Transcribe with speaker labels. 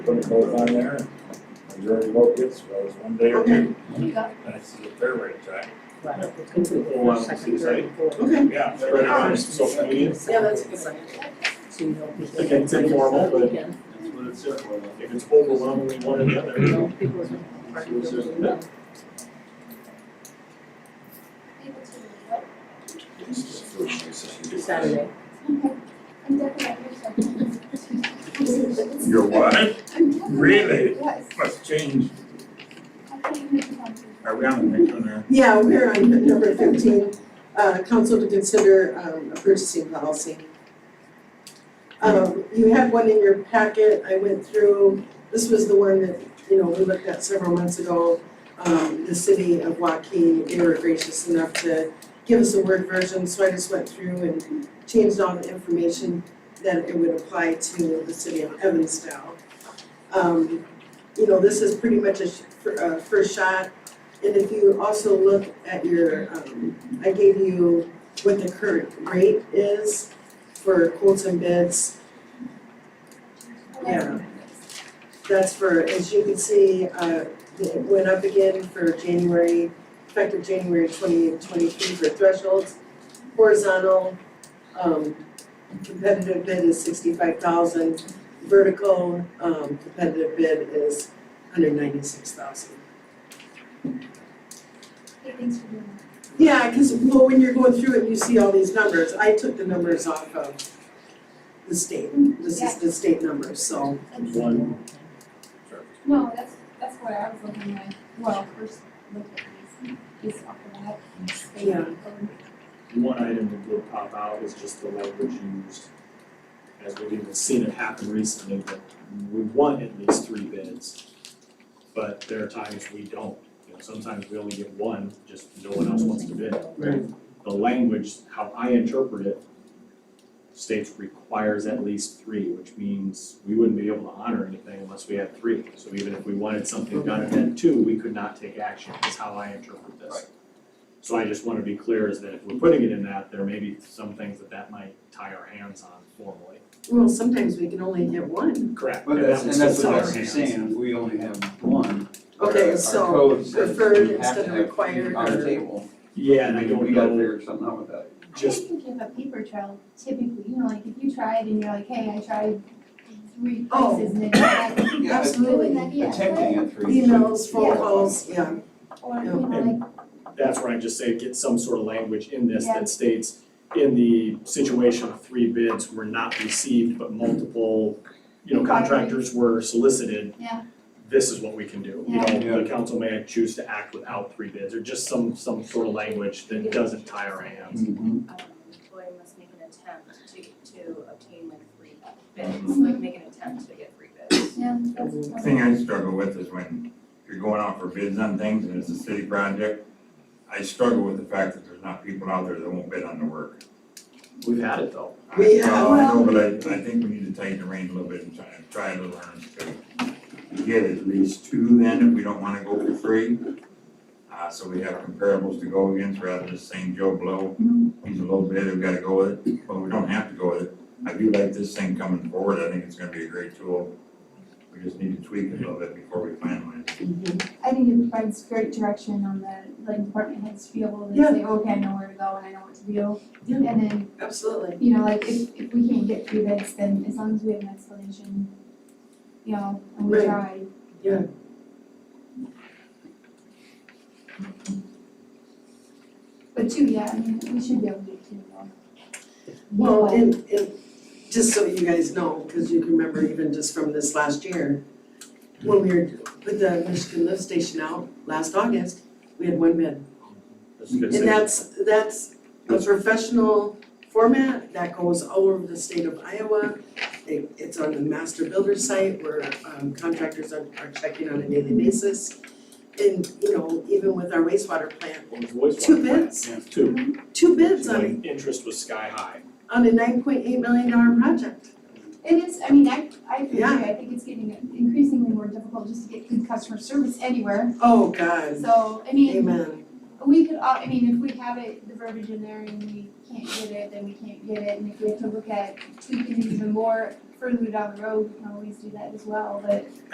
Speaker 1: put it both on there, and reserve the locates, well, it's one day or two, and it's the fair rate track.
Speaker 2: Right, it's gonna be the
Speaker 3: Well,
Speaker 2: first,
Speaker 3: obviously,
Speaker 2: second, third, and fourth.
Speaker 3: Okay.
Speaker 1: Yeah.
Speaker 3: Right around, so convenient.
Speaker 2: Second,
Speaker 4: Yeah, that's a good
Speaker 2: second,
Speaker 4: idea.
Speaker 2: So you don't. people-
Speaker 3: Again, it's informal, but-
Speaker 2: Again,
Speaker 3: That's what it's there for. If it's overwhelmingly one or the other,
Speaker 2: you know, people are- are.
Speaker 3: So it's just- yeah.
Speaker 2: Saturday.
Speaker 1: Your what?
Speaker 4: I'm definitely-
Speaker 1: Really?
Speaker 4: Yes.
Speaker 1: Must change
Speaker 4: I thought you meant something.
Speaker 1: around the next one there.
Speaker 5: Yeah, we're on number thirteen, uh, council to consider, um, a purchasing policy. Um, you had one in your packet, I went through, this was the one that, you know, we looked at several months ago. Um, the city of Waukee, they were gracious enough to give us a word version, so I just went through and changed all the information that it would apply to the city of Evansdale. Um, you know, this is pretty much a sh- fir- uh, first shot and if you also look at your, um, I gave you what the current rate is for quotes and bids. Yeah. That's for, as you can see, uh, it went up again for January, effective January twenty twenty-three for thresholds. Horizontal, um, competitive bid is sixty-five thousand, vertical, um, competitive bid is hundred ninety-six thousand.
Speaker 4: Hey, thanks for doing
Speaker 5: Yeah, because, well, when you're going through it, you see all these numbers, I took the numbers off of the state, this is the state numbers, so.
Speaker 4: that. That's-
Speaker 3: one,
Speaker 4: No, that's, that's what I was looking at, well, first looked at these, these off the bat. They-
Speaker 5: Yeah.
Speaker 3: one item that will pop out is just the language used. As we've even seen it happen recently, that we want at least three bids. But there are times we don't, you know, sometimes we only get one, just no one else wants to bid.
Speaker 2: Right.
Speaker 3: The language, how I interpret it, states requires at least three, which means we wouldn't be able to honor anything unless we had three. So even if we wanted something done and then two, we could not take action, is how I interpret this. So I just want to be clear is that if we're putting it in that, there may be some things that that might tie our hands on formally.
Speaker 5: Well, sometimes we can only hit one.
Speaker 3: Correct.
Speaker 6: But that's, and that's what
Speaker 3: our
Speaker 6: I was
Speaker 3: hands.
Speaker 6: saying, if we only have one.
Speaker 5: Okay,
Speaker 6: our
Speaker 5: so,
Speaker 6: code says
Speaker 5: preferred
Speaker 6: we have
Speaker 5: instead
Speaker 6: to have
Speaker 5: of required
Speaker 6: On
Speaker 5: or-
Speaker 6: the table,
Speaker 3: Yeah, and I
Speaker 6: and
Speaker 3: don't
Speaker 6: we gotta
Speaker 3: know,
Speaker 6: figure something out with that.
Speaker 4: I
Speaker 3: just,
Speaker 4: think if a paper trail typically, you know, like if you tried and you're like, hey, I tried three
Speaker 5: Oh.
Speaker 4: places and then I tried
Speaker 6: Yeah, it's
Speaker 5: absolutely,
Speaker 4: doing that, yeah.
Speaker 6: attempting at three.
Speaker 5: emails, phone
Speaker 4: Yeah.
Speaker 5: calls, yeah,
Speaker 4: Or, you know, like,
Speaker 3: that's where I just say get some sort of language in this
Speaker 4: Yeah.
Speaker 3: that states in the situation of three bids were not received, but multiple, you know,
Speaker 4: Inquiries.
Speaker 3: contractors were solicited.
Speaker 4: Yeah.
Speaker 3: This is what we can do. You
Speaker 4: Yeah.
Speaker 3: know, the council may choose to act without three bids or just some, some sort of language that doesn't tie our hands.
Speaker 6: Mhm.
Speaker 7: um, employee must make an attempt to, to obtain like free bids, like make an attempt to get free bids.
Speaker 4: yeah, that's.
Speaker 1: The Thing I struggle with is when you're going out for bids on things and it's a city project, I struggle with the fact that there's not people out there that won't bid on the work.
Speaker 3: We've had it though.
Speaker 1: I-
Speaker 5: We
Speaker 1: well, I
Speaker 4: have-
Speaker 1: know, but I, I think we need to tighten the rein a little bit and try, try to learn to get at least two then, if we don't wanna go for three. Uh, so we have comparables to go against rather than saying Joe Blow, he's a little bit, we gotta go with it, but we don't have to go with it. I do like this thing coming forward, I think it's gonna be a great tool. We just need to tweak it a little bit before we finalize. it.
Speaker 4: I think it provides great direction on the, like, department heads to be able to say, okay, I know where to go and I know what to do.
Speaker 5: Yeah.
Speaker 4: And then,
Speaker 5: absolutely.
Speaker 4: you know, like, if, if we can't get through this, then as long as we have an explanation, you know, and we
Speaker 5: Right.
Speaker 4: tried. But two, yeah, I mean, we should be able to get two, though.
Speaker 5: Well, and, and just so you guys know, because you can remember even just from this last year, when we were, put the Michigan lift station out last August, we had one bid.
Speaker 3: That's a good
Speaker 5: And that's,
Speaker 3: statement.
Speaker 5: that's a professional format that goes all over the state of Iowa. It, it's on the master builder site where um, contractors are, are checking on a daily basis. And, you know, even with our wastewater plant,
Speaker 3: What was voice
Speaker 5: two
Speaker 3: one?
Speaker 5: bids,
Speaker 3: Two.
Speaker 5: two bids on,
Speaker 3: Like, interest was sky high.
Speaker 5: on a nine point eight million dollar project.
Speaker 4: It is, I mean, I, I agree,
Speaker 5: Yeah.
Speaker 4: I think it's getting increasingly more difficult just to get good customer service anywhere.
Speaker 5: Oh, God,
Speaker 4: So, I mean,
Speaker 5: amen.
Speaker 4: we could, all- I mean, if we have it, the verbiage in there and we can't get it, then we can't get it. And if we have to look at tweaking it even more further down the road, we can always do that as well, but